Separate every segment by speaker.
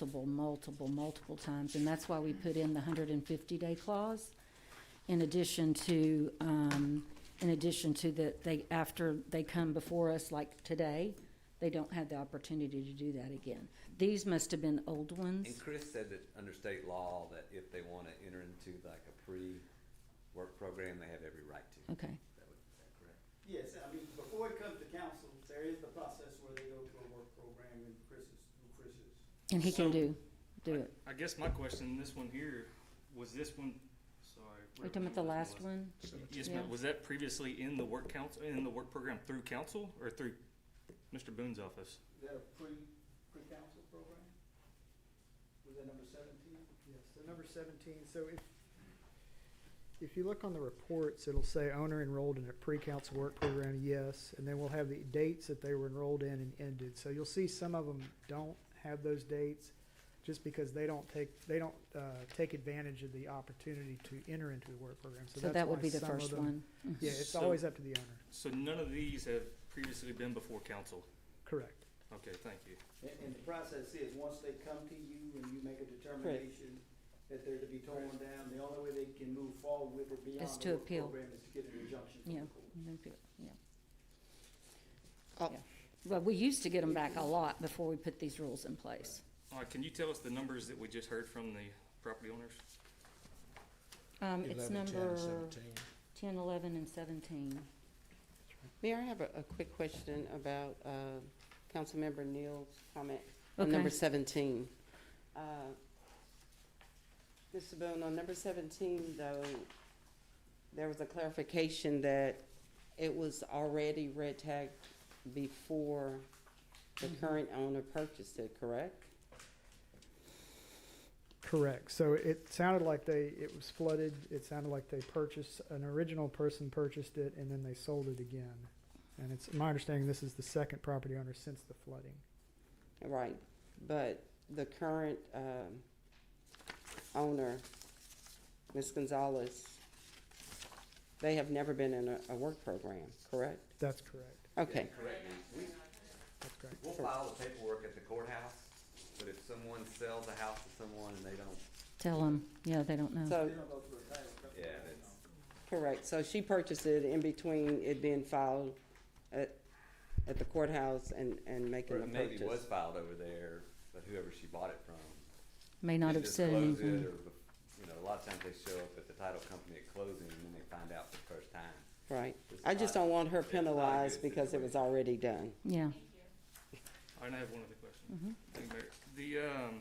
Speaker 1: multiple, multiple, multiple times, and that's why we put in the hundred and fifty day clause. In addition to, um, in addition to that, they, after they come before us, like today, they don't have the opportunity to do that again. These must have been old ones.
Speaker 2: And Chris said that under state law, that if they want to enter into like a pre-work program, they have every right to.
Speaker 1: Okay,
Speaker 2: Is that what- is that correct?
Speaker 3: Yes, I mean, before it comes to council, there is the process where they go to a work program and Chris is, who Chris is.
Speaker 1: and he can
Speaker 4: So-
Speaker 1: do, do it.
Speaker 4: I guess my question, this one here, was this one, sorry.
Speaker 1: Are you talking about the
Speaker 4: whatever
Speaker 1: last one?
Speaker 4: one was. Yes,
Speaker 1: Yeah.
Speaker 4: ma'am, was that previously in the work council, in the work program through council or through Mr. Boone's office?
Speaker 3: Is that a pre, pre-council program? Was that number seventeen?
Speaker 5: Yes, so number seventeen, so if, if you look on the reports, it'll say owner enrolled in a pre-council work program, yes, and then we'll have the dates that they were enrolled in and ended. So you'll see some of them don't have those dates, just because they don't take, they don't, uh, take advantage of the opportunity to enter into the work program, so
Speaker 1: So
Speaker 5: that's
Speaker 1: that would
Speaker 5: why
Speaker 1: be the
Speaker 5: some of
Speaker 1: first
Speaker 5: them-
Speaker 1: one.
Speaker 5: Yeah, it's
Speaker 4: So-
Speaker 5: always up to the owner,
Speaker 4: So none of these have previously been before council?
Speaker 5: correct,
Speaker 4: Okay, thank you.
Speaker 3: And, and the process is, once they come to you and you make a determination that they're to be torn down, the only way they can move forward with it beyond
Speaker 1: Is
Speaker 3: the
Speaker 1: to
Speaker 3: work
Speaker 1: appeal.
Speaker 3: program is to get an injunction from
Speaker 1: Yeah.
Speaker 3: the court.
Speaker 1: Yeah.
Speaker 6: Oh.
Speaker 1: Yeah. But we used to get them back a lot before we put these rules in place.
Speaker 4: All right, can you tell us the numbers that we just heard from the property owners?
Speaker 1: Um, it's
Speaker 7: 11, 10,
Speaker 1: number
Speaker 7: 17.
Speaker 1: ten, eleven, and seventeen.
Speaker 6: Mayor, I have a, a quick question about, uh, Councilmember Neal's comment on
Speaker 1: Okay.
Speaker 6: number seventeen. Uh, Mr. Boone, on number seventeen, though, there was a clarification that it was already red tagged before the current owner purchased it, correct?
Speaker 5: correct. So it sounded like they, it was flooded, it sounded like they purchased, an original person purchased it and then they sold it again. And it's my understanding this is the second property owner since the flooding.
Speaker 6: Right, but the current, um, owner, Ms. Gonzalez, they have never been in a, a work program, correct?
Speaker 5: That's correct,
Speaker 6: Okay,
Speaker 2: Correct. We,
Speaker 5: that's correct.
Speaker 2: we'll file the paperwork at the courthouse, but if someone sells a house to someone and they don't,
Speaker 1: Tell them, yeah, they don't know.
Speaker 6: so,
Speaker 3: They don't go through a title company.
Speaker 2: yeah, that's.
Speaker 6: correct, so she purchased it in between it being filed at, at the courthouse and, and making
Speaker 2: Or
Speaker 6: the
Speaker 2: it maybe was
Speaker 6: purchase.
Speaker 2: filed over there, but whoever she bought it from.
Speaker 1: May not have
Speaker 2: didn't
Speaker 1: said
Speaker 2: disclose it,
Speaker 1: anything.
Speaker 2: or bef- You know, a lot of times they show up at the title company at closing and then they find out for the first time.
Speaker 6: Right,
Speaker 2: It's
Speaker 6: I just
Speaker 2: not-
Speaker 6: don't want her
Speaker 2: it's not a good
Speaker 6: penalized because it was
Speaker 2: situation.
Speaker 6: already done.
Speaker 1: Yeah,
Speaker 4: All right, I have one other
Speaker 1: Mm-hmm.
Speaker 4: question. Thank you, Mayor. The, um,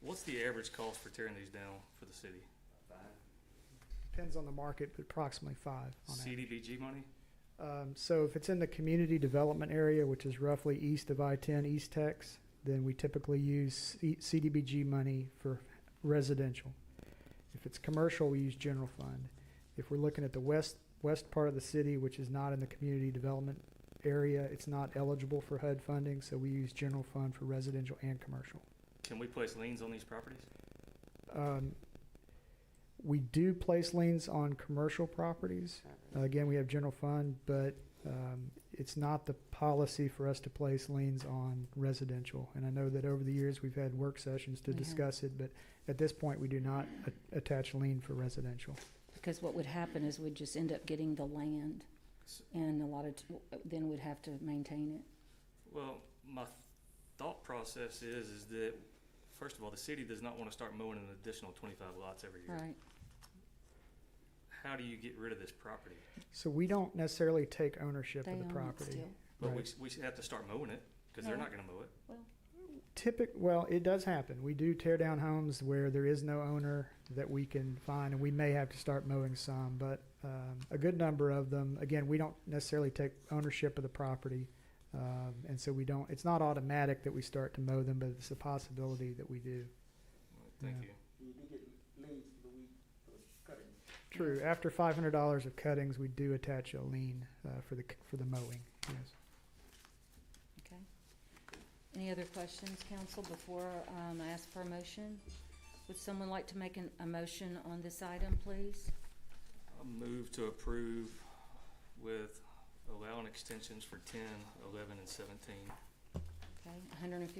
Speaker 4: what's the average cost for tearing these down for the city?
Speaker 2: Fine.
Speaker 5: Depends on the market, but approximately five on average.
Speaker 4: CDBG money?
Speaker 5: Um, so if it's in the community development area, which is roughly east of I-10, East Tex, then we typically use C- CDBG money for residential. If it's commercial, we use general fund. If we're looking at the west, west part of the city, which is not in the community development area, it's not eligible for HUD funding, so we use general fund for residential and commercial.
Speaker 4: Can we place liens on these properties?
Speaker 5: Um, we do place liens on commercial properties. Uh, Again, we have general fund, but um, it's not the policy for us to place liens on residential. And I know that over the years, we've had work sessions to
Speaker 1: We have.
Speaker 5: discuss it, but at this point, we do not a- attach lien for residential.
Speaker 1: because what would happen is we'd just end up getting the land
Speaker 4: S-
Speaker 1: and a lot of, t- then we'd have to maintain it.
Speaker 4: Well, my thought process is, is that, first of all, the city does not want to start mowing an additional twenty-five lots every year.
Speaker 1: Right,
Speaker 4: How do you get rid of this property?
Speaker 5: So we don't necessarily take ownership
Speaker 1: they
Speaker 5: of the
Speaker 1: own it
Speaker 5: property.
Speaker 1: still.
Speaker 4: But we,
Speaker 5: Right.
Speaker 4: we should have to start mowing it, because they're
Speaker 1: No.
Speaker 4: not gonna mow it.
Speaker 5: Typic, well, it does happen. We do tear down homes where there is no owner that we can find, and we may have to start mowing some, but um, a good number of them, again, we don't necessarily take ownership of the property. Um, and so we don't, it's not automatic that we start to mow them, but it's a possibility that we do.
Speaker 4: Thank
Speaker 5: Yeah.
Speaker 4: you.
Speaker 3: You do get leads for the week, for the cutting.
Speaker 5: True, after $500 of cuttings, we do attach a lien uh, for, the, c- for the mowing. Yes.
Speaker 1: Okay. Any other questions, council, before um, I ask for a motion? Would someone like to make an, a motion on this item, please?
Speaker 4: I'll move to approve with allowing extensions for ten, eleven, and seventeen.
Speaker 1: Okay, hundred and fifty